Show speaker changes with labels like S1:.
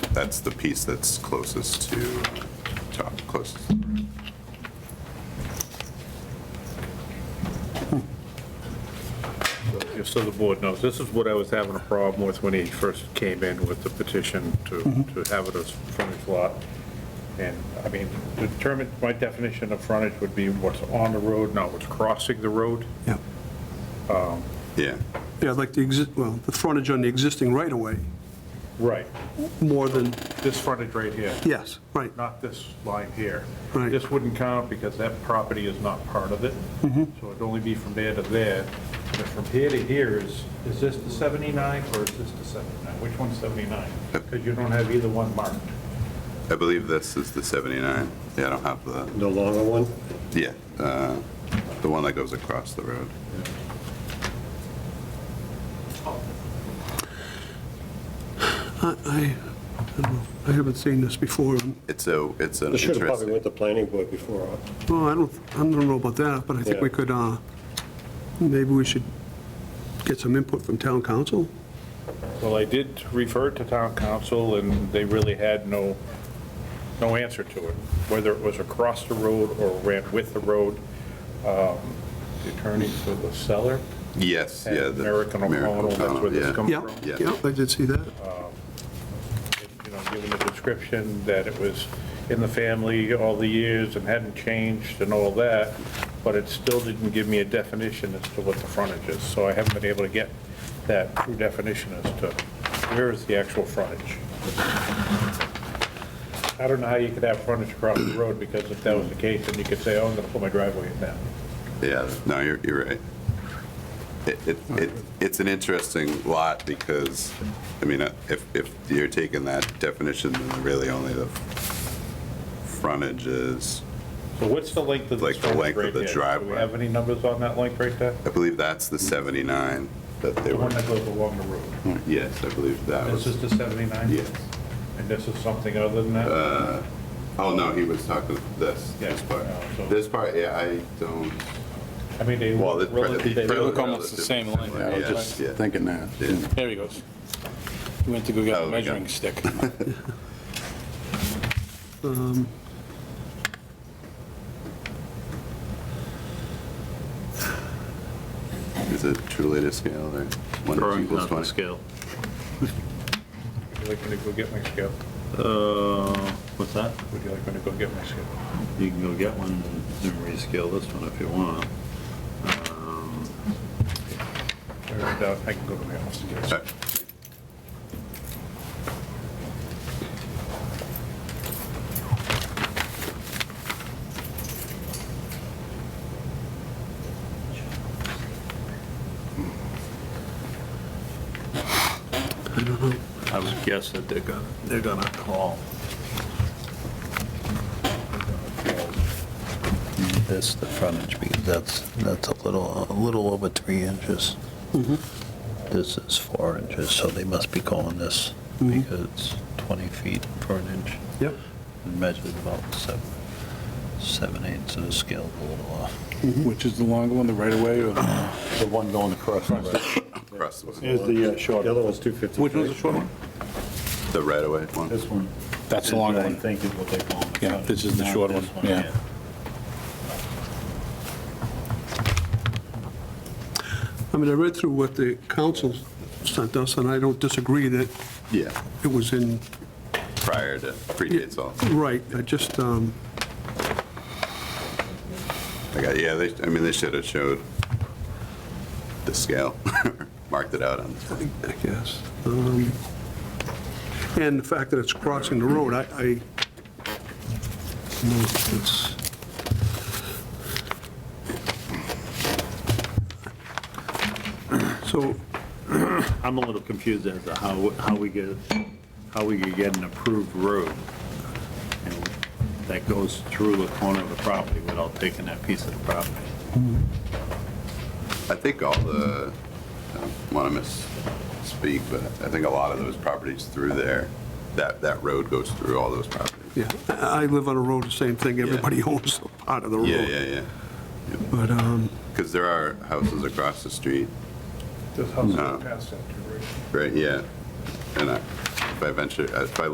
S1: That's the piece that's closest to, top, closest.
S2: Just so the board knows, this is what I was having a problem with when he first came in with the petition to, to have it as frontage lot. And, I mean, determine, my definition of frontage would be what's on the road, not what's crossing the road.
S3: Yeah,
S1: Yeah,
S3: yeah, like the exist, well, the frontage on the existing right-of-way,
S2: Right.
S3: more than,
S2: This frontage right here,
S3: yes, right,
S2: not this line here.
S3: Right.
S2: This wouldn't count because that property is not part of it. So it'd only be from there to there. But from here to here is, is this the 79 or is this the 79? Which one's 79? Because you don't have either one marked.
S1: I believe this is the 79. Yeah, I don't have the,
S4: The longer one?
S1: yeah, uh, the one that goes across the road.
S3: I, I I don't know, I haven't seen this before,
S1: It's a, it's an
S4: This should have probably
S1: interesting,
S4: went to planning board before. uh,
S3: well, I don't, I don't know about that, but I think we
S4: Yeah.
S3: could, uh, maybe we should get some input from town council?
S2: Well, I did refer to town council, and they really had no, no answer to it, whether it was across the road or ran with the road. Um, The attorney for the seller
S1: yes,
S2: and
S1: yeah. the
S2: American O'Connell, that's where
S1: yeah.
S2: this comes
S3: Yeah,
S2: from.
S1: Yeah.
S3: yeah, I did see that,
S2: You know, given the description that it was in the family all the years and hadn't changed and all that, but it still didn't give me a definition as to what the frontage is. So I haven't been able to get that true definition as to where is the actual frontage. I don't know how you could have frontage across the road, because if that was the case, then you could say, oh, I'm gonna put my driveway in that.
S1: Yeah, no, you're, you're right. It, it, it it's an interesting lot because, I mean, uh, if, if you're taking that definition, then really only the frontage is,
S2: So what's the length of this
S1: Like the
S2: frontage
S1: length of
S2: right
S1: the
S2: there? Do
S1: driveway.
S2: we have any numbers on that length right there?
S1: I believe that's the 79 that they
S2: The
S1: were,
S2: one that goes along the road.
S1: yes, I believe that
S2: This
S1: was,
S2: is the 79?
S1: yes.
S2: And this is something other than that?
S1: Uh, Oh, no, he was talking this,
S2: Yeah,
S1: this part.
S2: no, so-
S1: This part, yeah, I don't,
S2: I mean, they
S1: well,
S2: look
S1: it's. pre-
S2: relative, they
S1: pre-
S2: look,
S5: look almost the same
S1: relatively
S5: length,
S1: similar,
S5: yeah,
S1: yes, yeah.
S6: Thinking that.
S1: Yeah.
S5: There he goes. He went to go get
S1: Oh,
S5: a
S1: my God.
S5: measuring stick.
S6: Um,
S1: Is it truly to scale or one inch
S7: Drawing
S1: equals
S7: not on
S1: 20?
S7: scale.
S2: would you like me to go get my scale?
S7: Uh, what's that?
S2: Would you like me to go get my scale?
S7: You can go get one and rescale this one if you want. Um,
S2: Or I doubt I can go to my office and get it.
S1: Sorry.
S7: I would guess that they're gonna, they're gonna call.
S8: This, the frontage, because that's, that's a little, a little over three inches. This is four inches, so they must be calling this, because it's 20 feet per inch,
S3: yep,
S8: and measured about seven, seven eighths, so the scale's a little off.
S6: Which is the longer one, the right of way or the one going across?
S1: Across the-
S4: Here's the short. The other one's 250.
S6: uh, Which one's the short one?
S1: The right-of-way one?
S4: This one.
S6: That's the long
S4: This
S6: one.
S4: I think is what they call it.
S6: Yeah, this is the
S4: Not
S6: short
S4: this
S6: one, yeah.
S3: I mean, I read through what the council sent us, and I don't disagree that
S1: Yeah,
S3: it was in
S1: prior to, predates all.
S3: right, I just, um,
S1: I got, yeah, they, I mean, they should have showed the scale, marked it out on the thing.
S3: I guess. Um, And the fact that it's crossing the road, I, I, no, it's, so,
S7: I'm a little confused as to how, how we get, how we could get an approved road you know, that goes through the corner of the property without taking that piece of the property.
S1: I think all the, I don't want to misspeak, but I think a lot of those properties through there, that, that road goes through all those properties.
S3: yeah, I I live on a road, the same thing, everybody owns a part of the road.
S1: Yeah, yeah, yeah.
S3: But, um,
S1: Because there are houses across the street,
S2: This house
S1: No.
S2: is past that, too, right?
S1: right? Yeah. And I, if I venture, if I